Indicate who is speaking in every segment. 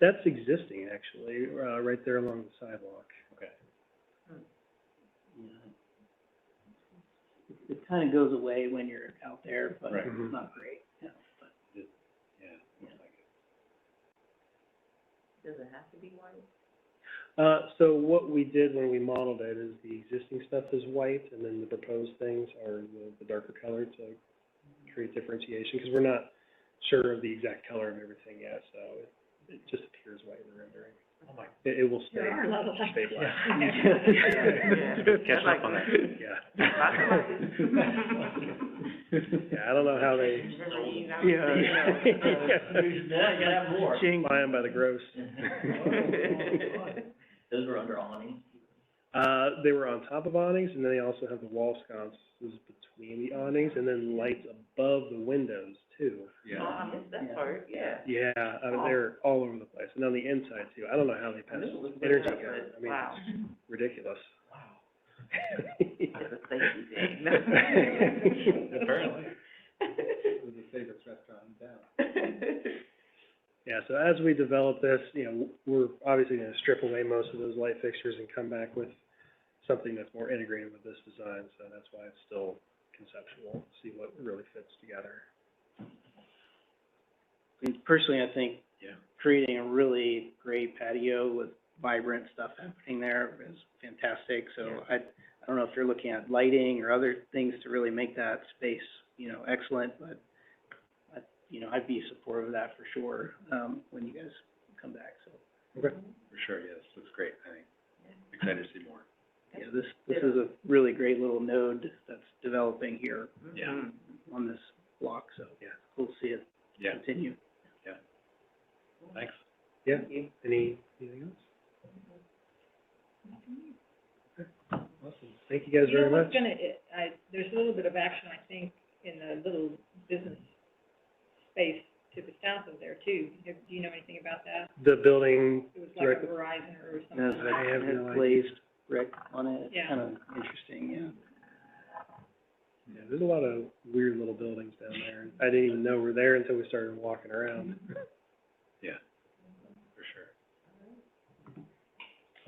Speaker 1: That's existing, actually, uh, right there along the sidewalk.
Speaker 2: Okay.
Speaker 3: you know. It- It kind of goes away when you're out there, but
Speaker 2: Right.
Speaker 1: Mhm.
Speaker 3: it's not great, yeah, but,
Speaker 2: Yeah, looks like it.
Speaker 4: Does it have to be white?
Speaker 1: Uh, so what we did when we modeled it is the existing stuff is white, and then the proposed things are the, the darker color to create differentiation, because we're not sure of the exact color of everything yet, so it, it just appears white in the rendering.
Speaker 2: Oh my.
Speaker 1: It, it will stay,
Speaker 4: are a lot of lights.
Speaker 1: stay black.
Speaker 2: Catch up on that.
Speaker 1: Yeah.
Speaker 3: yeah.
Speaker 1: Yeah, I don't know how they
Speaker 3: Yeah, you gotta have more.
Speaker 1: buy them by the gross.
Speaker 3: Those were under awning.
Speaker 1: Uh, they were on top of awnings, and then they also have the wall sconces between the awnings, and then lights above the windows too.
Speaker 4: Oh, I missed that part, yeah.
Speaker 1: Yeah, I mean, they're all over the place, and on the inside too. I don't know how they
Speaker 3: I
Speaker 1: pass
Speaker 3: knew it was
Speaker 1: energy
Speaker 3: lit up,
Speaker 1: code. I mean,
Speaker 4: Wow,
Speaker 1: it's ridiculous.
Speaker 4: it's a safety thing.
Speaker 2: Apparently.
Speaker 1: Yeah, so as we develop this, you know, we're obviously gonna strip away most of those light fixtures and come back with something that's more integrated with this design, so that's why it's still conceptual, see what really fits together.
Speaker 3: And Personally, I think
Speaker 2: Yeah.
Speaker 3: creating a really great patio with vibrant stuff happening there is fantastic. So I, I don't know if you're looking at lighting or other things to really make that space, you know, excellent, but I, you know, I'd be supportive of that for sure, um, when you guys come back, so.
Speaker 2: For sure, yes, looks great, I think. Excited to see more.
Speaker 3: Yeah, this, this is a really great little node that's developing here
Speaker 4: Mm-hmm.
Speaker 2: Yeah.
Speaker 3: on this block, so.
Speaker 1: Yeah.
Speaker 3: We'll see it
Speaker 2: Yeah,
Speaker 3: continue.
Speaker 2: thanks.
Speaker 1: Yeah, any, anything else? Okay, Awesome, thank you guys
Speaker 5: You know
Speaker 1: very much.
Speaker 5: what's gonna, it- I, there's a little bit of action, I think, in the little business space to the south of there too. Do do you know anything about that?
Speaker 1: The building,
Speaker 5: It was like
Speaker 1: Right.
Speaker 5: a Verizon or something.
Speaker 3: There's
Speaker 1: I have no idea.
Speaker 3: a glazed brick on it, it's
Speaker 5: Yeah.
Speaker 3: kind of interesting, yeah.
Speaker 1: yeah, there's a lot of weird little buildings down there. I didn't even know were there until we started walking around.
Speaker 2: Yeah, for sure.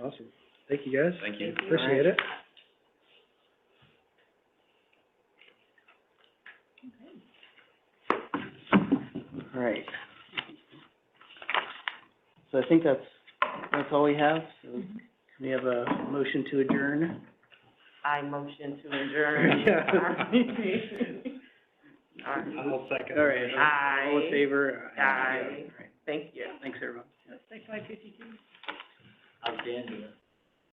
Speaker 1: Awesome, thank you guys.
Speaker 2: Thank you.
Speaker 1: Appreciate it.
Speaker 3: All right. So I think that's, that's all we have, so can we have a motion to adjourn?
Speaker 4: I motion to adjourn. All right.
Speaker 1: second.
Speaker 3: All right, all in
Speaker 4: Aye.
Speaker 3: favor?
Speaker 4: Aye.
Speaker 3: All right,
Speaker 4: Thank you.
Speaker 3: Thanks, everyone.
Speaker 5: That's like five fifty-two.
Speaker 3: Outstanding.